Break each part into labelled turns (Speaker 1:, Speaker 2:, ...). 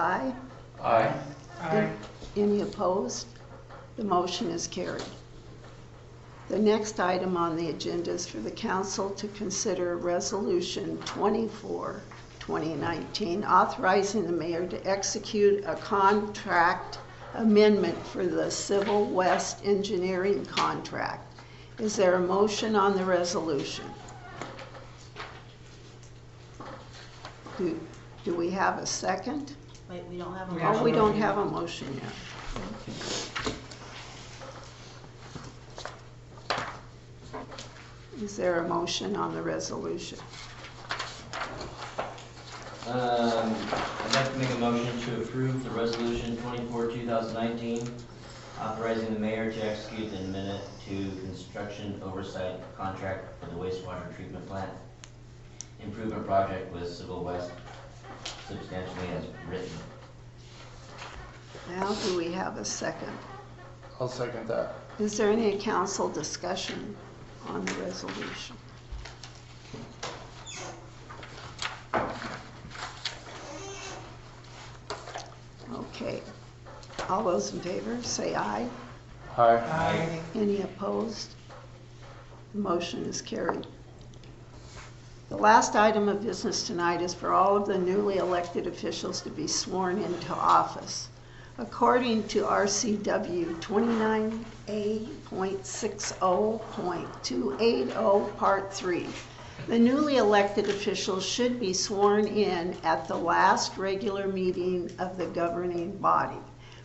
Speaker 1: Aye.
Speaker 2: Aye.
Speaker 3: Aye.
Speaker 1: Any opposed? The motion is carried. The next item on the agenda is for the council to consider Resolution 24, 2019, authorizing the mayor to execute a contract amendment for the Civil West Engineering contract. Is there a motion on the resolution? Do do we have a second?
Speaker 4: Wait, we don't have a
Speaker 3: We
Speaker 4: motion.
Speaker 1: Oh, we don't have a motion yet. Is there a motion on the resolution?
Speaker 2: Um, I'd like to make a motion to approve the resolution twenty-four, two thousand nineteen, authorizing the mayor to execute an amendment to construction oversight contract for the wastewater treatment plant improvement project with Civil West substantially as written.
Speaker 1: Now, do we have a second?
Speaker 5: I'll second that.
Speaker 1: Is there any council discussion on the resolution? Okay. All those in favor, say aye.
Speaker 5: Aye.
Speaker 3: Aye.
Speaker 1: Any opposed? The motion is carried. The last item of business tonight is for all of the newly elected officials to be sworn into office. According to RCW 29A.60.280, oh, Part 3, the newly elected officials should be sworn in at the last regular meeting of the governing body.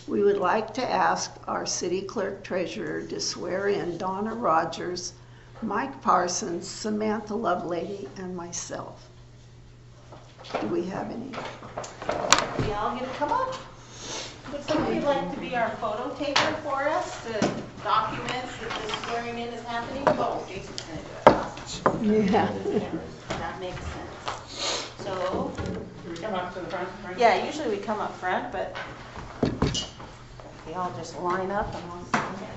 Speaker 1: We would like to ask our city clerk treasurer to swear in Donna Rogers, Mike Parsons, Samantha Lovelady, and myself. Do we have any?
Speaker 4: We all get to come up. Would somebody like to be our photo taker for us to document that this swearing in is happening? Oh, Jason's gonna do it. Awesome.
Speaker 1: Yeah.
Speaker 4: That makes sense. So,
Speaker 3: Do we come up to the front? Frank?
Speaker 4: yeah, usually we come up front, but we all just line up and we'll stand here.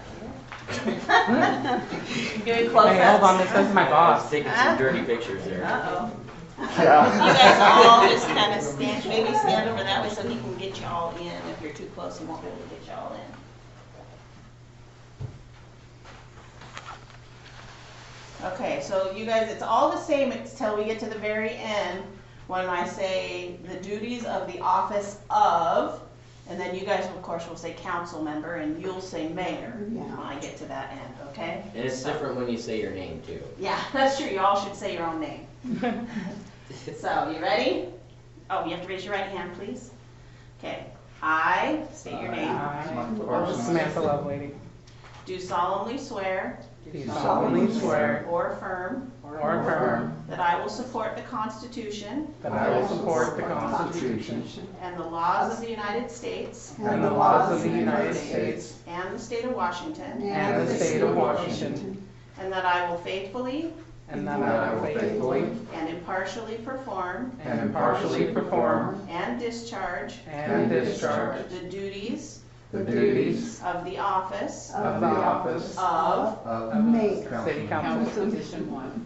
Speaker 4: Getting close.
Speaker 3: Hey, hold on, this is my boss.
Speaker 6: Taking
Speaker 4: some
Speaker 6: dirty pictures there.
Speaker 4: Uh-oh. You
Speaker 5: Yeah.
Speaker 4: guys all just kind of stand, maybe stand over that way so he can get you all in. If you're too close, he won't be able to get you all in. Okay, so you guys, it's all the same until we get to the very end, when I say the duties of the office of, and then you guys, of course, will say council member, and you'll say mayor
Speaker 1: Yeah.
Speaker 4: when I get to that end, okay?
Speaker 6: And it's different when you say your name too.
Speaker 4: Yeah, that's true. You all should say your own name. so, you ready? Oh, you have to raise your right hand, please. Okay. I, state your name,
Speaker 3: Aye.
Speaker 5: Parsons.
Speaker 3: Samantha Lovelady.
Speaker 4: do solemnly swear
Speaker 3: Do solemnly swear
Speaker 4: or affirm
Speaker 3: or affirm
Speaker 4: that I will support the Constitution
Speaker 3: that I will support the Constitution
Speaker 4: and the laws of the United States
Speaker 3: and the laws of the United States
Speaker 4: and the state of Washington,
Speaker 3: and the state of Washington,
Speaker 4: and that I will faithfully
Speaker 3: and that I will faithfully
Speaker 4: and impartially perform
Speaker 3: and impartially perform
Speaker 4: and discharge
Speaker 3: and discharge
Speaker 4: the duties
Speaker 5: The duties
Speaker 4: of the office
Speaker 5: of the office
Speaker 4: of
Speaker 5: of
Speaker 1: Mayor.
Speaker 3: city
Speaker 5: council
Speaker 3: council
Speaker 7: Position one,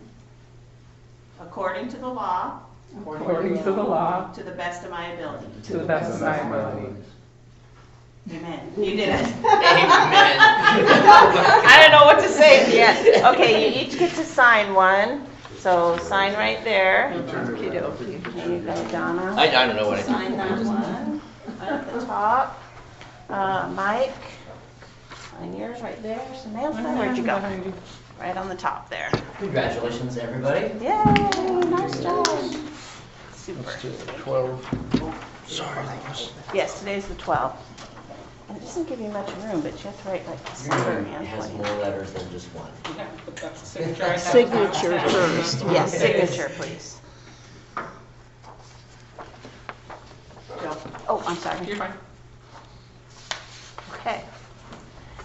Speaker 4: according to the law
Speaker 3: according to the law
Speaker 4: to the best of my ability.
Speaker 3: to the best of my ability.
Speaker 4: Amen. You did it. I don't know what to say at the end. Okay, you each get to sign one, so sign right there. There you go, Donna.
Speaker 6: I, I don't know what I did.
Speaker 4: Sign that one at the top. Uh, Mike, sign yours right there. Samantha, where'd you go? Right on the top there.
Speaker 6: Congratulations, everybody.
Speaker 4: Yay, nice job. Super.
Speaker 5: Twelve.
Speaker 4: Yes, today's the 12th. And it doesn't give you much room, but you have to write like
Speaker 6: Your
Speaker 4: December
Speaker 6: name
Speaker 4: and
Speaker 6: has
Speaker 4: 20.
Speaker 6: more letters than just one.
Speaker 1: Signature first.
Speaker 4: Yes, signature, please. Oh, I'm sorry.
Speaker 3: You're fine.
Speaker 4: Okay.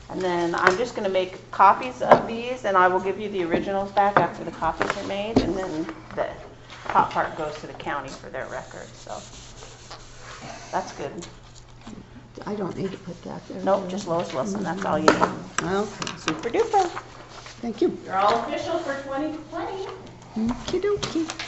Speaker 4: And then I'm just going to make copies of these, and I will give you the originals back after the copies are made, and then the top part goes to the county for their records, so. That's good.
Speaker 1: I don't need to put that there.
Speaker 4: Nope, just Lois Wilson, that's all you need.
Speaker 1: Okay,
Speaker 4: Super duper.
Speaker 1: thank you.
Speaker 4: You're all official for 2020.
Speaker 1: Okey-dokey.